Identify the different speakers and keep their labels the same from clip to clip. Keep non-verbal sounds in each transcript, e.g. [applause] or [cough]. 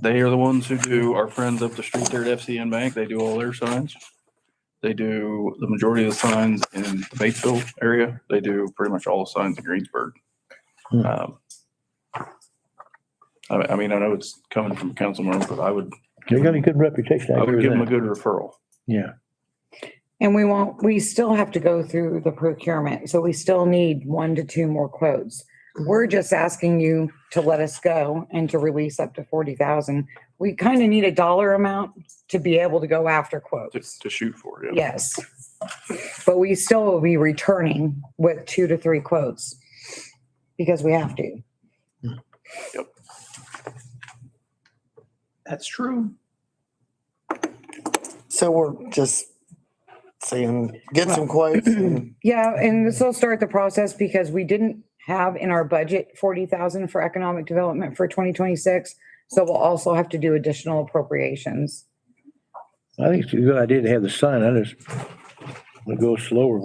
Speaker 1: They are the ones who do our friends up the street there at FCN Bank. They do all their signs. They do the majority of the signs in the Batesville area. They do pretty much all the signs in Greensburg.
Speaker 2: Hmm.
Speaker 1: Um, I, I mean, I know it's coming from council members, but I would,
Speaker 2: They got a good reputation.
Speaker 1: I would
Speaker 2: agree
Speaker 1: give them a
Speaker 2: with that.
Speaker 1: good referral.
Speaker 2: Yeah,
Speaker 3: And we won't, we still have to go through the procurement, so we still need one to two more quotes. We're just asking you to let us go and to release up to forty thousand. We kind of need a dollar amount to be able to go after
Speaker 1: to,
Speaker 3: quotes.
Speaker 1: to shoot for. Yeah.
Speaker 3: Yes. But we still will be returning with two to three quotes because we have to.
Speaker 4: That's true.
Speaker 5: So we're just saying, get some quotes. and-
Speaker 3: Yeah, and this will start the process because we didn't have in our budget forty thousand for economic development for twenty twenty-six. So we'll also have to do additional appropriations.
Speaker 2: I think it's a good idea to have the sign. I just want to go slower.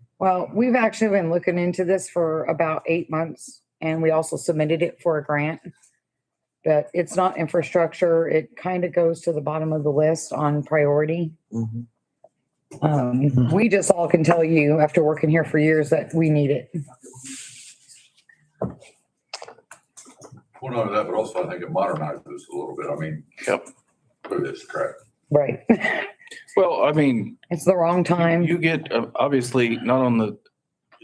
Speaker 2: [laughs]
Speaker 3: Well, we've actually been looking into this for about eight months and we also submitted it for a grant. But it's not infrastructure. It kind of goes to the bottom of the list on priority. Mm-hmm.
Speaker 5: Mhm.
Speaker 3: Um, we just all can tell you after working here for years that we need it.
Speaker 6: Well, not only that, but also I think it modernizes us a little bit. I mean.
Speaker 1: Yep.
Speaker 6: Through this crap.
Speaker 3: Right.
Speaker 1: Well, I mean,
Speaker 3: It's the wrong time.
Speaker 1: You get, uh, obviously, not on the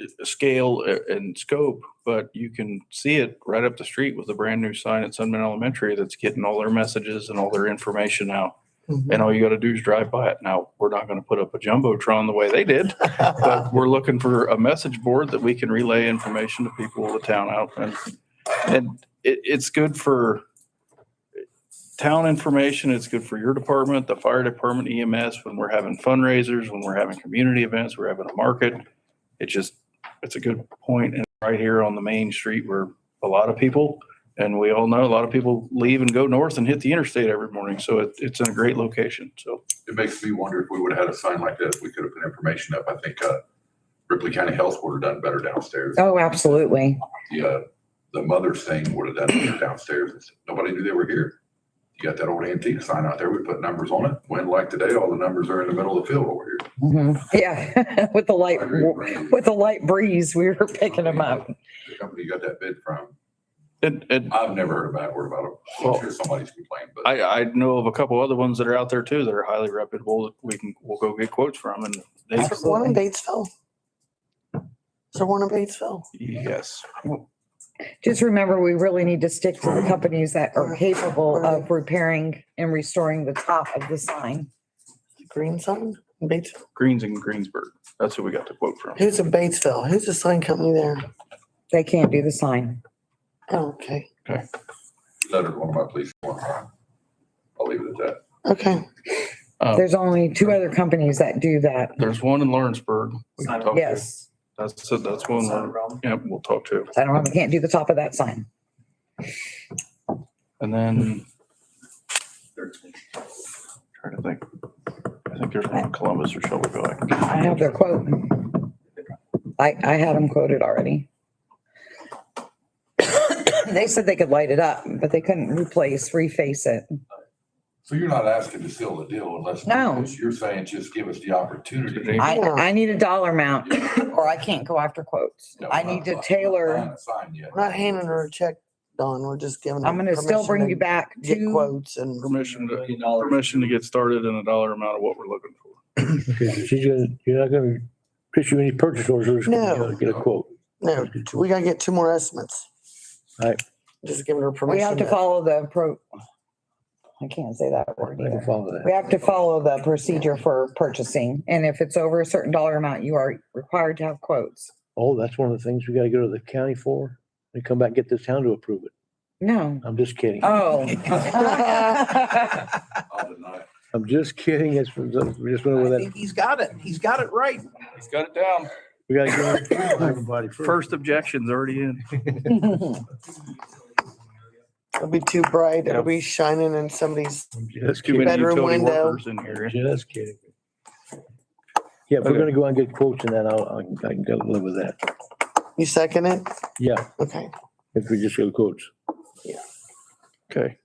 Speaker 1: uh, scale a- and scope, but you can see it right up the street with a brand-new sign at Sunman Elementary that's getting all their messages and all their information out.
Speaker 5: Mhm.
Speaker 1: And all you gotta do is drive by it. Now, we're not gonna put up a jumbotron the way they did, but we're looking for a message board that we can relay information to people of the town out. And, and it, it's good for town information. It's good for your department, the fire department, EMS, when we're having fundraisers, when we're having community events, we're having a market. It just, it's a good point and right here on the main street where a lot of people, and we all know a lot of people leave and go north and hit the interstate every morning. So it, it's in a great location. So
Speaker 6: It makes me wonder if we would have had a sign like this, we could have put information up. I think, uh, Ripley County Health would have done better downstairs.
Speaker 3: Oh, absolutely.
Speaker 6: The, uh, the mother's thing would have done better downstairs. Nobody knew they were here. You got that old antique sign out there. We put numbers on it. When like today, all the numbers are in the middle of the field over here.
Speaker 3: Mhm. Yeah, [laughs] with the light,
Speaker 6: I agree with Randy.
Speaker 3: with the light breeze, we were picking them up.
Speaker 6: The company you got that bid from,
Speaker 1: it, it,
Speaker 6: I've never heard a bad word about it. I'm sure somebody's complained, but.
Speaker 1: I, I know of a couple other ones that are out there too that are highly reputable that we can, we'll go get quotes from and they,
Speaker 5: Is there one in Batesville? Is there one in Batesville?
Speaker 1: yes.
Speaker 3: Just remember, we really need to stick to the companies that are capable of repairing and restoring the top of the sign.
Speaker 5: Green sign in Batesville?
Speaker 1: Greens and Greensburg. That's who we got the quote from.
Speaker 5: Who's in Batesville? Who's the sign company there?
Speaker 3: They can't do the sign.
Speaker 5: Oh, okay,
Speaker 6: lettered one of my police forms. I'll leave it at that.
Speaker 5: okay.
Speaker 1: Uh,
Speaker 3: There's only two other companies that do that.
Speaker 1: There's one in Lawrenceburg. we can talk to.
Speaker 3: Yes,
Speaker 1: That's, so that's one, we're- yeah, we'll talk to.
Speaker 3: I don't, know, they can't do the top of that sign.
Speaker 1: And then.
Speaker 5: Hmm.
Speaker 1: Trying to think. I think there's one in Columbus or Shelbyville. I can get-
Speaker 3: I have their quote. I, I had them quoted already. They said they could light it up, but they couldn't replace, reface it.
Speaker 6: So you're not asking to seal the deal unless.
Speaker 3: No.
Speaker 6: You're saying just give us the opportunity.
Speaker 3: I,
Speaker 5: Yeah.
Speaker 3: I need a dollar
Speaker 5: [coughs]
Speaker 3: amount or I can't go after quotes.
Speaker 6: No,
Speaker 3: I
Speaker 6: we're
Speaker 3: need
Speaker 6: not-
Speaker 3: to
Speaker 6: not
Speaker 3: tailor.
Speaker 6: Sign yet.
Speaker 5: We're not handing her a check, Don. We're just giving. her
Speaker 3: I'm gonna still
Speaker 5: permission
Speaker 3: bring
Speaker 5: to
Speaker 3: you back
Speaker 5: Get
Speaker 3: two,
Speaker 5: quotes and,
Speaker 1: Permission to, permission to get started and a dollar amount of what we're looking for.
Speaker 2: Okay, so she's gonna, you're not gonna issue any purchase orders. we're just gonna, you know,
Speaker 5: No.
Speaker 2: Get a quote.
Speaker 5: no, we gotta get two more estimates.
Speaker 2: Right.
Speaker 5: Just giving her
Speaker 3: we
Speaker 5: permission.
Speaker 3: have to follow the pro. I can't say that word
Speaker 2: I can
Speaker 3: either.
Speaker 2: follow
Speaker 3: We
Speaker 2: that.
Speaker 3: have to follow the procedure for purchasing, and if it's over a certain dollar amount, you are required to have quotes.
Speaker 2: Oh, that's one of the things we gotta go to the county for. And come back and get this town to approve it.
Speaker 3: No.
Speaker 2: I'm just kidding.
Speaker 4: Uh,
Speaker 3: [laughs]
Speaker 5: [laughs]
Speaker 3: Oh.
Speaker 6: I'll deny it.
Speaker 2: I'm just kidding. It's, we just went over
Speaker 4: I
Speaker 2: that.
Speaker 4: think he's got it. He's got it right.
Speaker 1: He's got it down.
Speaker 2: We gotta give
Speaker 4: [coughs]
Speaker 2: it to everybody first.
Speaker 1: First objection's already in.
Speaker 5: It'll be too bright. It'll be shining in somebody's
Speaker 1: There's
Speaker 2: Just
Speaker 1: too many
Speaker 5: Bedroom
Speaker 1: utility
Speaker 5: window.
Speaker 1: workers in here.
Speaker 2: just kidding. Yeah, if we're
Speaker 1: Okay.
Speaker 2: gonna go out and get quotes and that, I'll, I'll- I can go live with that.
Speaker 5: You second it?
Speaker 2: Yeah,
Speaker 5: Okay.
Speaker 2: if we just go quotes.
Speaker 1: Okay.